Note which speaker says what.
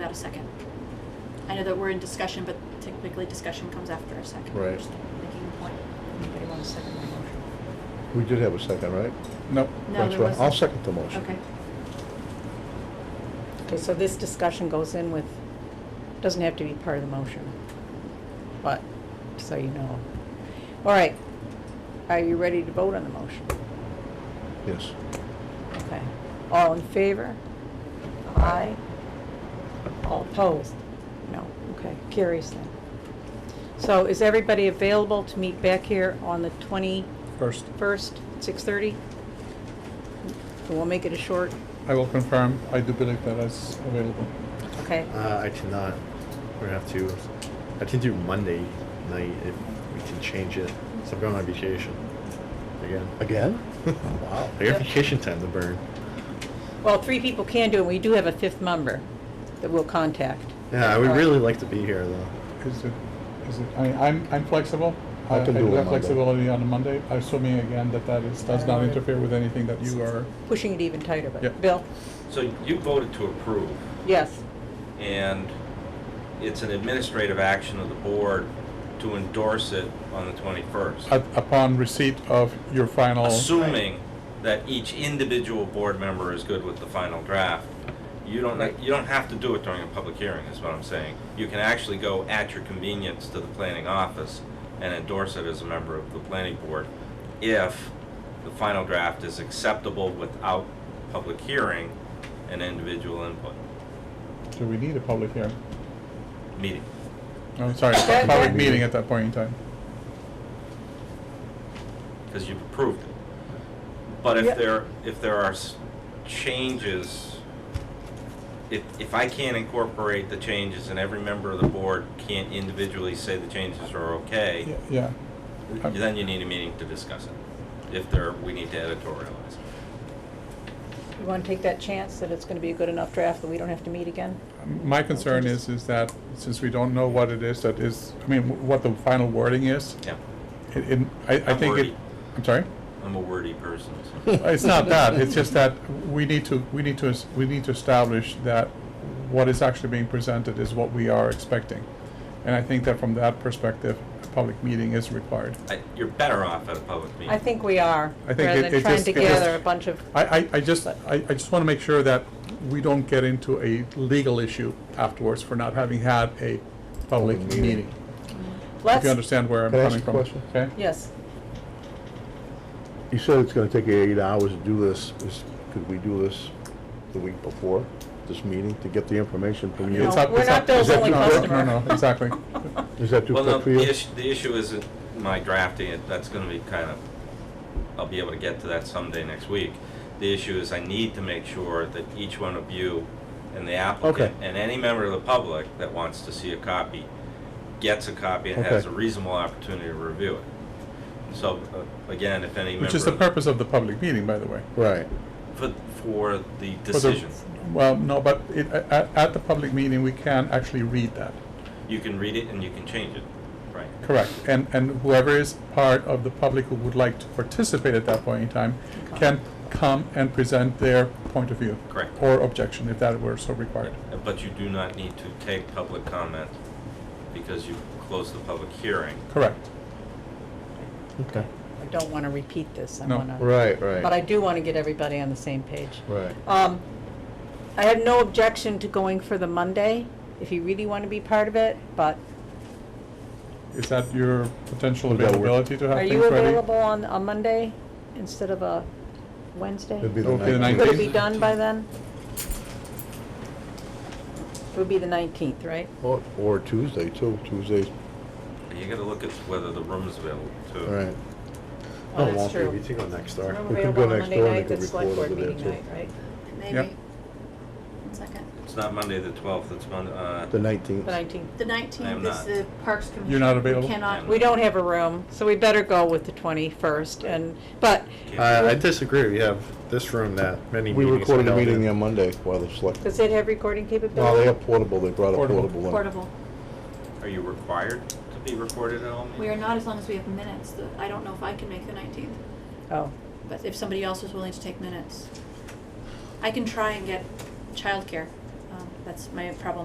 Speaker 1: know that we're in discussion, but typically discussion comes after a second.
Speaker 2: Right.
Speaker 1: Just Making a point.
Speaker 3: Anybody want to second my motion?
Speaker 2: We did have a second, right?
Speaker 4: Nope.
Speaker 1: No,
Speaker 2: That's
Speaker 1: there
Speaker 2: right. I'll
Speaker 1: wasn't.
Speaker 2: second the motion.
Speaker 1: Okay.
Speaker 3: Okay, so this discussion goes in with, doesn't have to be part of the motion, but, so you know. All right, are you ready to vote on the motion?
Speaker 2: Yes.
Speaker 3: Okay, all in favor? Aye. All opposed? No, okay, carries then. So is everybody available to meet back here on the twenty-first,
Speaker 4: First,
Speaker 3: six-thirty? We'll make it a short,
Speaker 4: I will confirm, I do believe that is available.
Speaker 3: okay?
Speaker 5: Uh, I cannot. We're gonna have to. I can do Monday night if we can change it. So I'm going on vacation again.
Speaker 2: Again?
Speaker 5: Wow. I got vacation time to burn.
Speaker 3: Well, three people can do it, we do have a fifth member that we'll contact.
Speaker 5: Yeah, I would
Speaker 3: Alright.
Speaker 5: really like to be here though.
Speaker 3: Oh,
Speaker 4: Is it, is it, I, I'm, I'm flexible.
Speaker 2: I can do it
Speaker 4: have
Speaker 2: Monday.
Speaker 4: flexibility on a Monday, assuming again that that is, does not
Speaker 3: Alright.
Speaker 4: interfere with anything that you are,
Speaker 3: Pushing it even tighter, but,
Speaker 4: Yep.
Speaker 3: Bill?
Speaker 6: So you voted to approve,
Speaker 3: Yes.
Speaker 6: and it's an administrative action of the board to endorse it on the 21st,
Speaker 4: up- upon receipt of your final.
Speaker 6: assuming that each individual board member is good with the final draft. You don't, you don't have to do it during a public hearing, is what I'm saying. You can actually go at your convenience to the planning office and endorse it as a member of the planning board if the final draft is acceptable without public hearing and individual input,
Speaker 4: Do we need a public hearing?
Speaker 6: meeting.
Speaker 4: Oh, sorry,
Speaker 3: That-
Speaker 4: public
Speaker 3: that-
Speaker 4: meeting at that point in time.
Speaker 6: because you've approved it. But if
Speaker 3: Yep.
Speaker 6: there, if there are s- changes, if, if I can't incorporate the changes and every member of the board can't individually say the changes are
Speaker 4: Yeah,
Speaker 6: okay,
Speaker 4: Yeah, I'm-
Speaker 6: then you need a meeting to discuss it, if there, we need to editorialize.
Speaker 3: You want to take that chance that it's going to be a good enough draft that we don't have to meet again?
Speaker 4: my concern is, is that since we don't know what it is that is, I mean, wh- what the final wording is,
Speaker 6: Yeah,
Speaker 4: it, it- I, I
Speaker 6: I'm
Speaker 4: think it,
Speaker 6: worried.
Speaker 4: I'm sorry?
Speaker 6: I'm a wordy person, so.
Speaker 4: It's not that, it's just that we need to, we need to, es- we need to establish that what is actually being presented is what we are expecting. And I think that from that perspective, a public meeting is required.
Speaker 6: I- You're better off at a public meeting.
Speaker 3: I think we are,
Speaker 4: I think
Speaker 3: rather
Speaker 4: it-
Speaker 3: than
Speaker 4: it
Speaker 3: trying
Speaker 4: just-
Speaker 3: to
Speaker 4: it just-
Speaker 3: gather a bunch of,
Speaker 4: I, I, I just, I, I just wanna make sure that we don't get into a legal issue afterwards for not having had a public
Speaker 2: Public meeting.
Speaker 4: meeting. If
Speaker 3: let's,
Speaker 4: you understand where I'm
Speaker 2: Can I ask
Speaker 4: coming
Speaker 2: a
Speaker 4: from,
Speaker 2: question?
Speaker 4: okay?
Speaker 3: yes.
Speaker 2: You said it's gonna take you eight hours to do this. Is, could we do this the week before this meeting to get the information from you?
Speaker 4: It's
Speaker 3: No,
Speaker 4: up-
Speaker 3: we're
Speaker 4: it's
Speaker 3: not
Speaker 4: up-
Speaker 3: Bill's
Speaker 4: is that
Speaker 3: only
Speaker 4: too quick?
Speaker 3: customer.
Speaker 4: No, no, exactly.
Speaker 2: Is that too
Speaker 6: Well, no,
Speaker 2: quick for
Speaker 6: the
Speaker 2: you?
Speaker 6: issue, the issue isn't my drafting it, that's gonna be kind of, I'll be able to get to that someday next week. The issue is I need to make sure that each one of you and the
Speaker 2: Okay.
Speaker 6: applicant and any member of the public that wants to see a copy gets a copy and has
Speaker 2: Okay.
Speaker 6: a reasonable opportunity to review it. So, uh, again, if any member.
Speaker 4: Which is the
Speaker 6: of
Speaker 4: purpose of the public meeting, by the way.
Speaker 2: Right.
Speaker 6: For, for
Speaker 4: For
Speaker 6: the
Speaker 4: the-
Speaker 6: decision.
Speaker 4: Well, no, but it, at, at the public meeting, we can actually read that,
Speaker 6: You can read it and you can change it, right?
Speaker 4: correct? And, and whoever is part of the public who would like to participate at that point in time can come and present their point of view.
Speaker 6: Correct.
Speaker 4: Or objection, if that were so required.
Speaker 6: Uh, But you do not need to take public comment because you closed the public hearing.
Speaker 4: Correct.
Speaker 2: Okay.
Speaker 3: I don't want to repeat this, I
Speaker 4: No.
Speaker 3: want to,
Speaker 2: Right, right.
Speaker 3: but I do want to get everybody on the same page.
Speaker 2: Right.
Speaker 3: Um, I have no objection to going for the Monday, if you really want to be part of it, but
Speaker 4: Is that your potential
Speaker 2: Would that work?
Speaker 4: availability to have
Speaker 3: are
Speaker 4: things
Speaker 3: you
Speaker 4: ready?
Speaker 3: available on a Monday instead of a Wednesday?
Speaker 2: It'd be
Speaker 4: It'll be
Speaker 2: the
Speaker 4: the
Speaker 3: Would it
Speaker 2: nineteenth.
Speaker 3: be done by then? It would be the nineteenth, right?
Speaker 2: Or, or Tuesday too. Tuesday's,
Speaker 6: You gotta look at whether the room's available too.
Speaker 2: all right.
Speaker 3: Oh,
Speaker 5: it
Speaker 3: that's
Speaker 5: won't be.
Speaker 3: true.
Speaker 5: We can go next door.
Speaker 3: I'm
Speaker 2: We can
Speaker 3: available
Speaker 2: go
Speaker 3: on
Speaker 2: next
Speaker 3: Monday
Speaker 2: door and
Speaker 3: night,
Speaker 2: they can
Speaker 3: that's select
Speaker 2: record
Speaker 3: board
Speaker 2: over there,
Speaker 3: meeting night,
Speaker 2: too.
Speaker 3: right?
Speaker 1: Maybe.
Speaker 4: Yep.
Speaker 1: One second.
Speaker 6: It's not Monday the twelfth, it's Monday, uh,
Speaker 2: The nineteenth.
Speaker 3: The nineteenth.
Speaker 1: The
Speaker 6: I
Speaker 1: nineteenth
Speaker 6: am
Speaker 1: is
Speaker 6: not.
Speaker 1: the Parks Commission.
Speaker 4: not available?
Speaker 1: We cannot.
Speaker 3: We don't have a room, so we better go with the twenty-first and, but,
Speaker 5: Uh, I disagree. We have this room that many
Speaker 2: We
Speaker 5: meetings. are
Speaker 2: recorded a
Speaker 5: held
Speaker 2: meeting
Speaker 5: in.
Speaker 2: on Monday while the select,
Speaker 3: does it have recording
Speaker 2: no, they
Speaker 3: capability?
Speaker 2: have portable, they brought a
Speaker 4: Portable.
Speaker 2: portable in.
Speaker 1: Portable.
Speaker 6: are you required to be recorded at all meetings?
Speaker 1: We are not as long as we have minutes. The- I don't know if I can make the nineteenth,
Speaker 3: Oh,
Speaker 1: but if somebody else is willing to take minutes. I can try and get childcare. Um, That's my problem